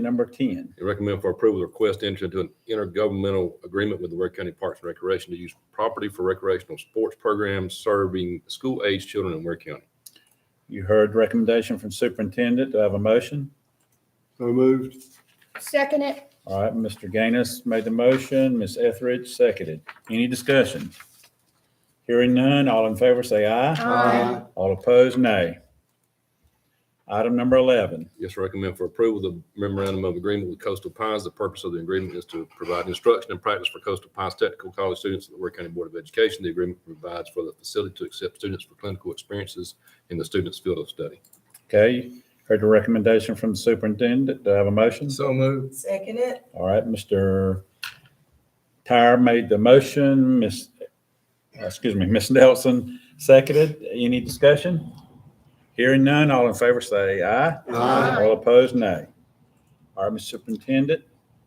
number ten. They recommend for approval, the request to enter into an intergovernmental agreement with the Ware County Parks and Recreation to use property for recreational sports programs serving school-aged children in Ware County. You heard the recommendation from superintendent. Do I have a motion? So moved. Second it. All right, Mr. Gaines made the motion, Ms. Etheridge seconded. Any discussion? Hearing none, all in favor say aye. Aye. All opposed, nay. Item number eleven. Yes, recommend for approval, the memorandum of agreement with Coastal Pines. The purpose of the agreement is to provide instruction and practice for Coastal Pines Technical College students at the Ware County Board of Education. The agreement provides for the facility to accept students for clinical experiences in the student's field of study. Okay, heard the recommendation from the superintendent. Do I have a motion? So moved. Second it. All right, Mr. Tyre made the motion, Ms., excuse me, Ms. Nelson seconded. Any discussion? Hearing none, all in favor say aye. Aye. All opposed, nay. All right, Mr. Superintendent,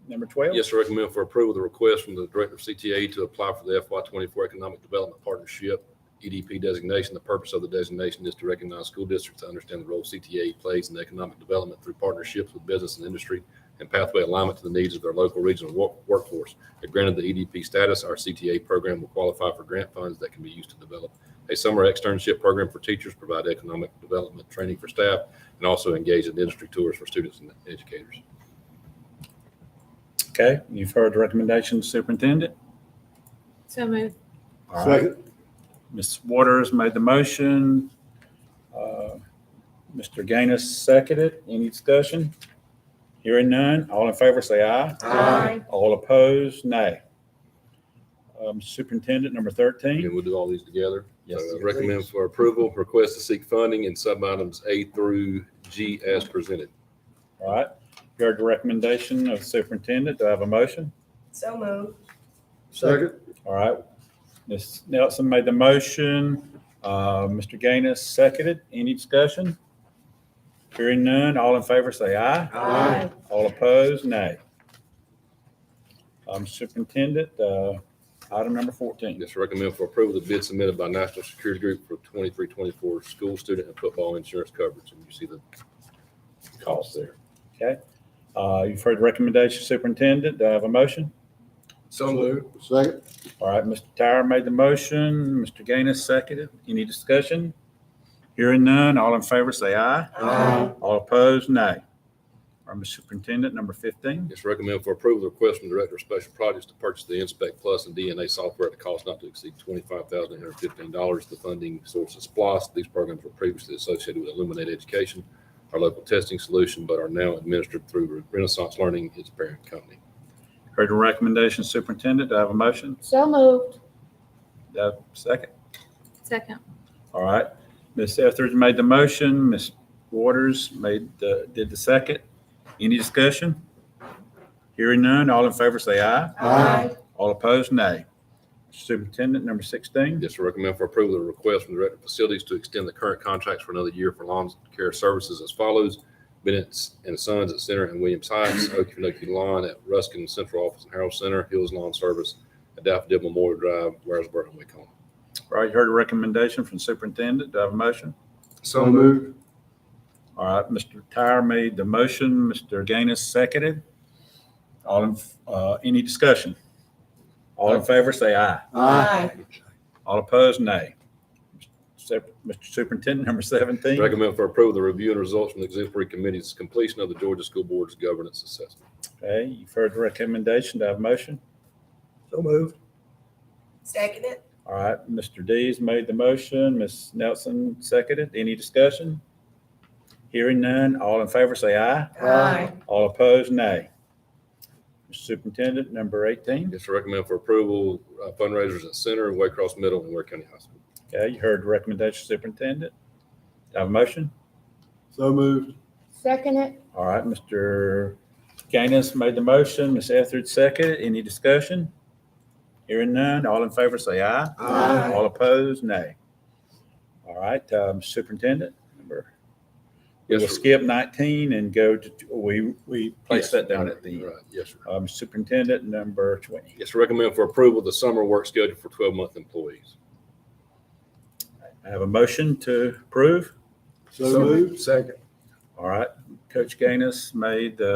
number 12? Yes, sir, recommend for approval, the request from the Director of CTA to apply for the FY twenty-four Economic Development Partnership, EDP designation. The purpose of the designation is to recognize school districts that understand the role CTA plays in economic development through partnerships with business and industry and pathway alignment to the needs of their local regional wo- workforce. If granted the EDP status, our CTA program will qualify for grant funds that can be used to develop a summer externship program for teachers, provide economic development training for staff, and also engage in industry tours for students and educators. Okay, you've heard the recommendation, Superintendent. So moved. All right, Second. Ms. Waters made the motion. Uh, Mr. Gaines seconded. Any discussion? Hearing none, all in favor say aye. Aye. All opposed, nay. Um, Superintendent, number 13. And we'll do all these together. Yes. So, uh, Recommend for approval, request to seek funding in sub-items A through G as presented. All right, you heard the recommendation of Superintendent. Do I have a motion? So moved. Second. All right, Ms. Nelson made the motion. Uh, Mr. Gaines seconded. Any discussion? Hearing none, all in favor say aye. Aye. All opposed, nay. Um, Superintendent, uh, item number 14. Yes, recommend for approval, the bid submitted by National Security Group for 23-24 school student and football insurance coverage. And you see the cost there. Uh, You've heard the recommendation, Superintendent. Do I have a motion? So moved. Second. All right, Mr. Tyra made the motion, Mr. Gaines seconded. Any discussion? Hearing none, all in favor say aye. Aye. All opposed, nay. All right, Mr. Superintendent, number 15. Yes, recommend for approval, the request from Director of Special Projects to purchase the Inspect Plus and DNA software at a cost not to exceed $25,815. The funding source is SPOS. These programs were previously associated with Illuminate Education, our local testing solution, but are now administered through Renaissance Learning, its parent company. Heard the recommendation, Superintendent. Do I have a motion? So moved. Do I have a second? Second. All right, Ms. Etheridge made the motion, Ms. Waters made the, did the second. Any discussion? Hearing none, all in favor say aye. Aye. All opposed, nay. Superintendent, number 16. Yes, sir. recommend for approval, the request from the Director of Facilities to extend the current contracts for another year for lawn care services as follows. Bennett and Sons at Center and Williams Heights, Okeechobee Lawn at Ruskin Central Office and Harold Center, Hills Lawn Service, at Daffodil Memorial Drive, Waresburg, and Wakeholma. All right, you heard a recommendation from superintendent. Do I have a motion? So moved. All right, Mr. Tyre made the motion, Mr. Gaines seconded. All in, uh, any discussion? All in favor, say aye. All opposed, nay. Sep- Mr. Superintendent, number 17. Recommend for approval, the review and results from the exemplary committee's completion of the Georgia School Board's governance assessment. Okay, you've heard the recommendation. Do I have a motion? So moved. Second it. All right, Mr. Dees made the motion, Ms. Nelson seconded. Any discussion? Hearing none, all in favor, say aye. Aye. All opposed, nay. Mr. Superintendent, number 18. Yes, sir. recommend for approval, uh, fundraisers at Center, Waycross Middle, and Ware County High School. Okay, you heard the recommendation, Superintendent. Do I Have a motion? So moved. Second it. All right, Mr. Gaines made the motion, Ms. Etheridge seconded. Any discussion? Hearing none, all in favor say aye. Aye. All opposed, nay. All right, um, Superintendent, number, Yes, we'll sir. skip 19 and go to, we, we place that down at the, Right, yes, sir. um, Superintendent, number 20. Yes, sir. recommend for approval, the summer work schedule for twelve-month employees. I have a motion to approve. So moved. Second. All right, Coach Gaines made the